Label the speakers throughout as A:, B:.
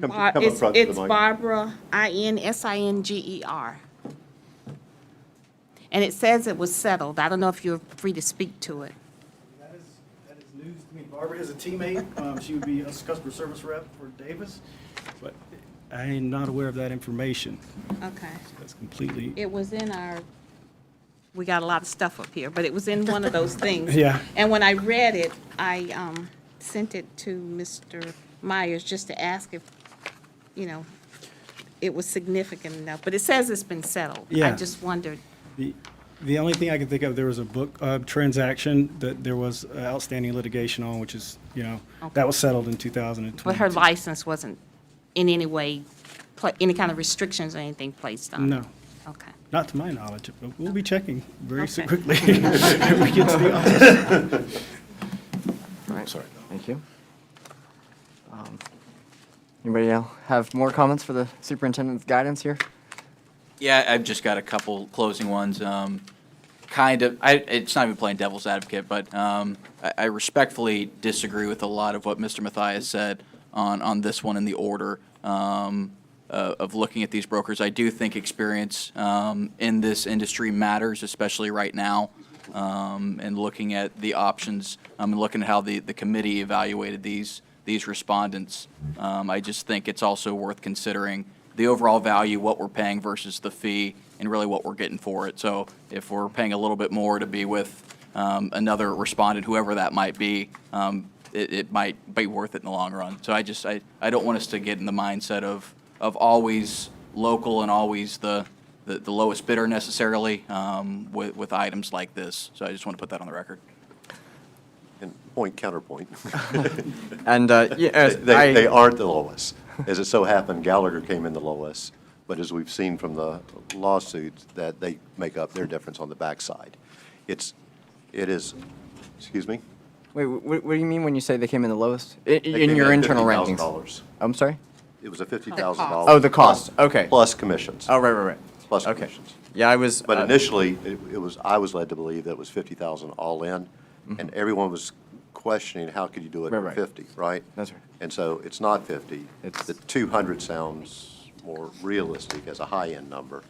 A: Come-
B: Bar-
A: come up
B: it's-
A: front to the
B: It's
A: mic.
B: Barbara, I-N-S-I-N-G-E-R. E And it says it was settled. I don't know if you're free to speak to it.
C: That is, that is news to me. Barbara is a teammate. Um, She would be a customer service rep for Davis, but I am not aware of that information.
B: Okay.
C: That's completely,
B: It was in our, we got a lot of stuff up here, but it was in one of those things.
C: Yeah.
B: And when I read it, I um, sent it to Mr. Myers just to ask if, you know, it was significant enough. But it says it's been settled. I
C: Yeah.
B: just wondered.
C: the, the only thing I can think of, there was a book uh, transaction that there was uh, outstanding litigation on, which is, you know,
B: Okay.
C: that was settled in 2020.
B: But her license wasn't in any way, pla- any kind of restrictions or anything placed on it?
C: No,
B: Okay.
C: not to my knowledge, but we'll be checking very
B: Okay.
C: quickly. when we get to the office.
D: All right. Sorry. Thank you. Um, Anybody else have more comments for the superintendent's guidance here?
E: Yeah, I've just got a couple closing ones. Um, kind of, I, it's not even playing devil's advocate, but um, I, I respectfully disagree with a lot of what Mr. Mathias said on, on this one in the order um, uh, of looking at these brokers. I do think experience um, in this industry matters, especially right now. Um, and looking at the options, um, and looking at how the, the committee evaluated these these respondents, um, I just think it's also worth considering the overall value, what we're paying versus the fee, and really what we're getting for it. So if we're paying a little bit more to be with um, another respondent, whoever that might be, um, it, it might be worth it in the long run. So I just, I, I don't want us to get in the mindset of, of always local and always the, the the lowest bidder necessarily um, with, with items like this. So I just want to put that on the record.
A: And point counterpoint.
D: And, uh,
A: They,
D: yeah, as I-
A: they aren't the lowest. As it so happened, Gallagher came in the lowest, but as we've seen from the lawsuits, that they make up their difference on the backside. It's, it is, excuse me?
D: Wait, wh- wh- what do you mean when you say they came in the lowest?
A: They
D: I- In
A: came
D: your
A: at
D: internal
A: $50,000.
D: rankings? I'm sorry?
A: It was a fifty thousand
B: The
A: dollars.
B: cost.
D: Oh, the cost, okay.
A: Plus commissions.
D: Oh, right, right, right.
A: Plus
D: Okay.
A: commissions.
D: Yeah, I was.
A: But
D: uh,
A: initially, it it was, I was led to believe that it was 50,000 all in, and everyone was questioning, how could you do it
D: Mm-hmm. Right,
A: at
D: right.
A: 50, right?
D: That's right.
A: And so it's not 50.
D: It's-
A: The 200 sounds more realistic as a high-end number,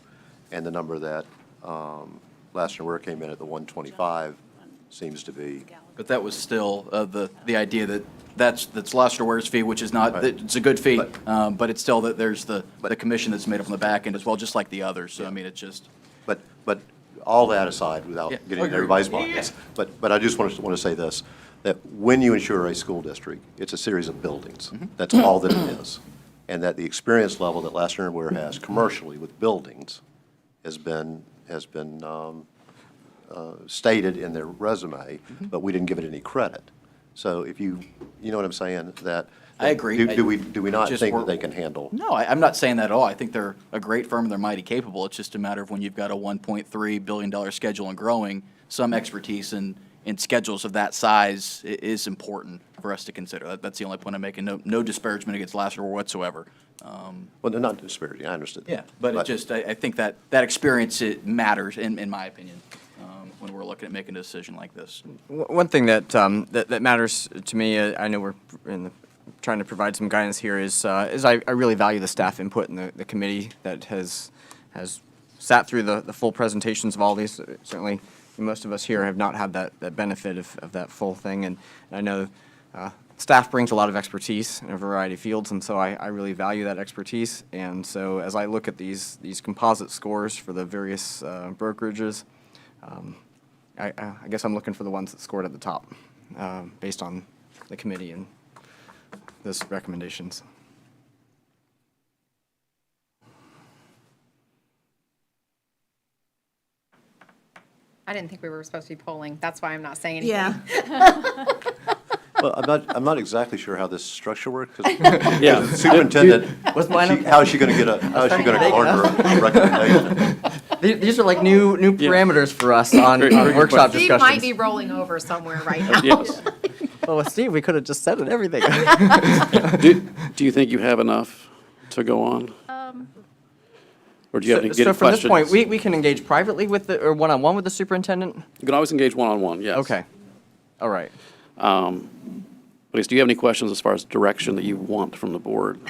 A: and the number that um, Lassiter Ware came in at, the 125, seems to be,
E: But that was still uh, the, the idea that that's, that's Lobster Ware's fee, which is not, that it's a good fee,
A: But-
E: um, but it's still that there's the, the commission that's made up on the back end as well, just like the others. So I mean, it's just.
A: but, but all that aside, without
E: Yeah,
A: getting in
E: agree.
A: everybody's
E: Yeah, yeah,
A: pockets.
E: yeah.
A: But, but I just want to, want to say this, that when you insure a school district, it's a series of buildings.
E: Mm-hmm.
A: That's all that it is. And that the experience level that Lassiter and Ware has commercially with buildings has been, has been um, uh, stated in their resume,
E: Mm-hmm.
A: but we didn't give it any credit. So if you, you know what I'm saying, that.
E: I agree.
A: Do do we, do we not
E: Just
A: think that
E: we're-
A: they can handle?
E: No, I, I'm not saying that at all. I think they're a great firm. They're mighty capable. It's just a matter of when you've got a 1.3 billion dollar schedule and growing, some expertise in, in schedules of that size i- is important for us to consider. That, that's the only point I'm making. No, no disparagement against Lassiter whatsoever. Um,
A: Well, they're not disparaging, I understood. that.
E: yeah, but it just I, I think that that experience it matters in, in my opinion um, when we're looking at making a decision like this.
D: W- One thing that, um, that that matters to me, uh, I know we're in the, trying to provide some guidance here, is uh, is I, I really value the staff input and the, the committee that has has sat through the, the full presentations of all these. Uh, Certainly, most of us here have not had that, that benefit of, of that full thing, and I know uh, staff brings a lot of expertise in a variety of fields, and so I, I really value that expertise. And so as I look at these these composite scores for the various uh, brokerages. um, I, I I guess I'm looking for the ones that scored at the top, um, based on the committee and those recommendations.
F: I didn't think we were supposed to be polling. That's why I'm not saying anything.
B: Yeah.
A: Well, I'm not, I'm not exactly sure how this structure works, 'cause- because the superintendent,
D: What's mine
A: she-
D: up?
A: how is she going to get a, how is she going to garner a recommendation?
D: These, these are like new, new parameters for us on,
G: Great-
D: on
G: great
D: workshop
F: Steve might be
D: discussions.
F: rolling over somewhere right now.
G: Yes.
D: Well, with Steve, we could have just settled everything.
G: Do, do you think you have enough to go on? Or do you have any
D: So so
G: good
D: from this point,
G: questions?
D: we,
G: You
D: we can engage privately with the, or one-on-one with the superintendent?
G: can always engage one-on-one, yes.
D: Okay, all right.
G: But do you have any questions as far as direction that you want from the board?